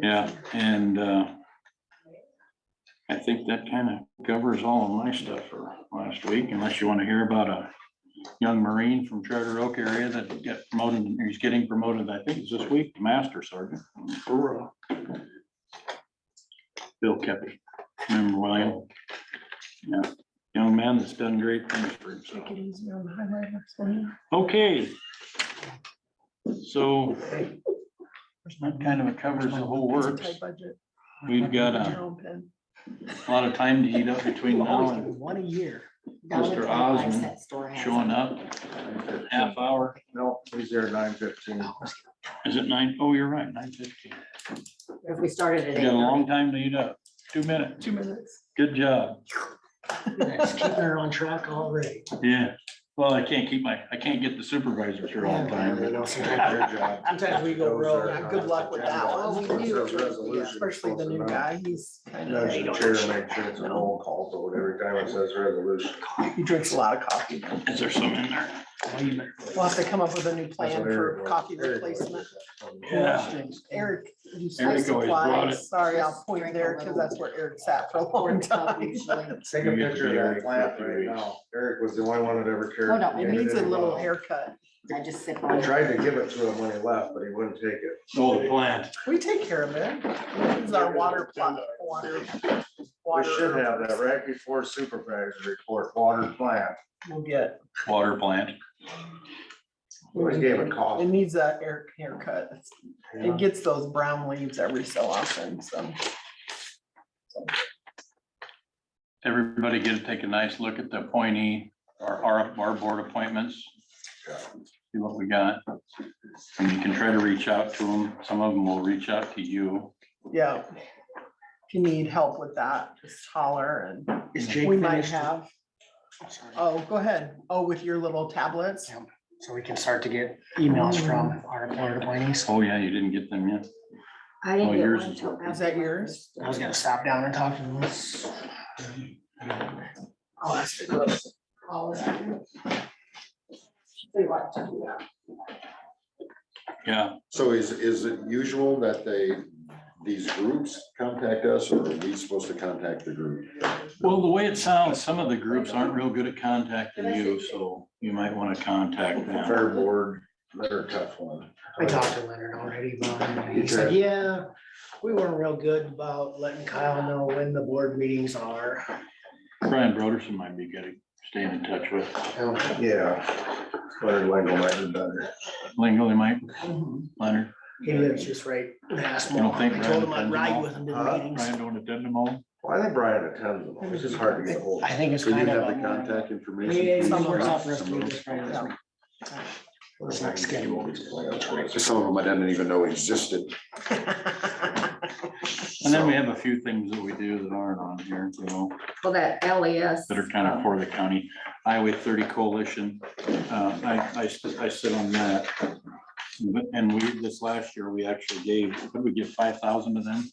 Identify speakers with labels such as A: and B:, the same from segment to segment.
A: Yeah, and uh, I think that kind of covers all of my stuff for last week, unless you want to hear about a young Marine from Charter Oak area that got promoted, he's getting promoted, I think it's this week, to Master Sergeant. Hoorah. Bill Kepi, remember William? Yeah, young man that's done great things for himself.
B: Take it easy on the highway, that's fine.
A: Okay. So that kind of covers the whole
B: It's a
A: works.
B: tight budget.
A: We've got uh, a
B: General pen.
A: lot of time to eat up between
C: You
A: now
C: always do
A: and
C: one a year.
A: Mr. Osmond showing up. Half hour,
D: No, he's there nine fifteen.
B: Oh,
A: is it nine? Oh, you're right, nine fifteen.
C: If we started
A: We got a long time to eat up. Two minutes.
B: Two minutes.
A: Good job.
C: That's keeping her on track already.
A: Yeah. Well, I can't keep my, I can't get the supervisors here all the time.
C: Sometimes we go rogue. Yeah, good luck with that
B: uh, Well, we do,
D: Resolution.
B: especially the new guy, he's kind of.
D: Does the chair make sure it's a roll call vote every time it says resolution?
C: He drinks a lot of coffee.
A: Is there some in there?
B: We'll have to come up with a new plan
D: That's what Eric
B: for
D: was-
B: coffee
D: Eric was- "Oh,
B: replacement.
A: Yeah.
B: Eric, you
A: always brought it.
B: supplies, sorry, I'll point there because that's where Eric sat for a long time.
D: Take a picture of that plant right now. Eric was the only one that ever
E: Hold
D: carried.
E: on, we
B: It needs Oh, a little haircut.
E: I just sip on
D: I
E: it.
D: uh, tried to give it to him when he left, but he wouldn't take it.
A: Oh, the plant.
B: We take care of it. This is our water plant, water.
D: We
B: water-
D: should have that right before supervisor report, water plant.
B: We'll get.
A: Water plant.
D: Always gave a
B: It
D: cough.
B: needs a Eric haircut. It gets those brown leaves every so often, so.
A: Everybody get to take a nice look at the appointee, our, our, our board appointments. See what we got. And you can try to reach out to them. Some of them will reach out to you.
B: Yeah. If you need help with that, just holler and
C: Is Jake
B: we might
C: finished?
B: have,
C: Sorry.
B: oh, go ahead. Oh, with your little tablets?
C: So we can start to get emails from our appointed appointees.
A: Oh, yeah, you didn't get them yet.
E: I
A: Oh,
E: didn't get
A: yours
E: one
A: is
E: till
A: working.
B: Is that
E: after
B: yours?
C: I was gonna stop down and talk to them.
B: I'll ask for those.
E: all of that. We like to do that.
A: Yeah,
F: So is, is it usual that they, these groups contact us or are we supposed to contact the group?
A: well, the way it sounds, some of the groups aren't real good at contacting you, so you might want to contact them.
F: Fair board, they're a tough one.
C: I talked to Leonard already about it. and He
F: You
C: said,
F: tried.
C: yeah, we weren't real good about letting Kyle know when the board meetings are.
A: Brian Broderson might be good at staying in touch with.
C: Um,
A: Oh.
D: Yeah. Leonard Wingo might have done it.
A: Lingo, they might, Mm-hmm. Leonard,
C: He lives just right in
A: You
C: Asmal.
A: don't think
C: I told him
A: Brandon
C: I'd
A: Fenton
C: ride with him to the
D: Huh?
C: meetings.
A: Brian don't attend them all.
D: Well, I think Brian attends them, all. it's just hard to get ahold.
C: I
D: of.
C: think it's
F: So you
C: kind
F: have
C: of.
F: the
C: a-
F: contact information.
C: Yeah, yeah,
F: for
C: some
F: each
C: works
F: group?
C: out for us to do this right
B: Yeah.
C: now. It's not scheduled.
F: Some of them I didn't even know existed.
A: And then we have a few things that we do that aren't on here, you know.
E: Well, that LES.
A: that are kind of
E: um,
A: for the county. Highway thirty coalition, uh, I, I, s- I sit on that. But- And we, this last year, we actually gave, what did we give, five thousand to them?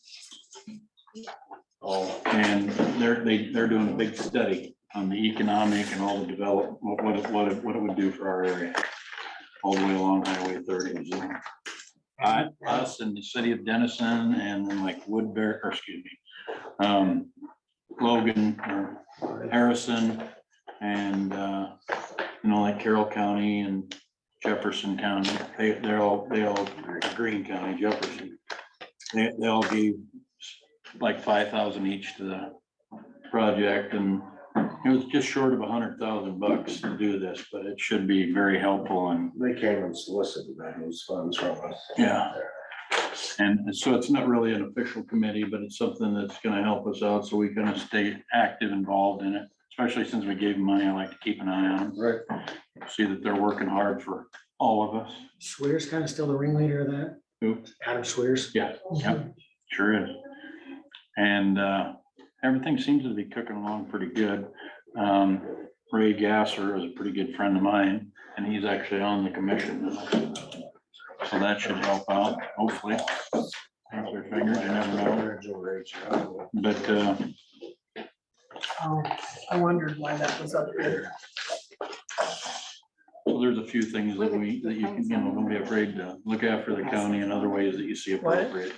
A: Oh, and they're, they, they're doing a big study on the economic and all the develop, what, what, it- what, it- what it would do for our area. All the way along Highway thirty. so. I, us and the city of Dennison and then like Woodbury, or excuse me, um, Logan, or Harrison and, uh, you know, like Carroll County and Jefferson County, they, they're all, they all, Green County, Jefferson. They, they all gave like five thousand each to the project and it was just short of a hundred thousand bucks to do this, but it should be very helpful and,
D: They came and solicited those funds from us.
A: yeah. And so it's not really an official committee, but it's something that's gonna help us out, so we're gonna stay active involved in it, especially since we gave them money, I like to keep an eye on them.
F: Right.
A: see that they're working hard for all of us.
C: Swears kind of still the ringleader of that.
A: Who?
C: Adam Swears.
A: Yeah. Yep, sure is. And uh, everything seems to be cooking along pretty good. Um, Ray Gasser is a pretty good friend of mine, and he's actually on the commission. So that should help out, hopefully. Cross their fingers, you never know. But uh,
B: Oh, I wondered why that was up there.
A: so there's a few things that we, that you can, you know, don't be afraid to look after the county in other ways that you see appropriate.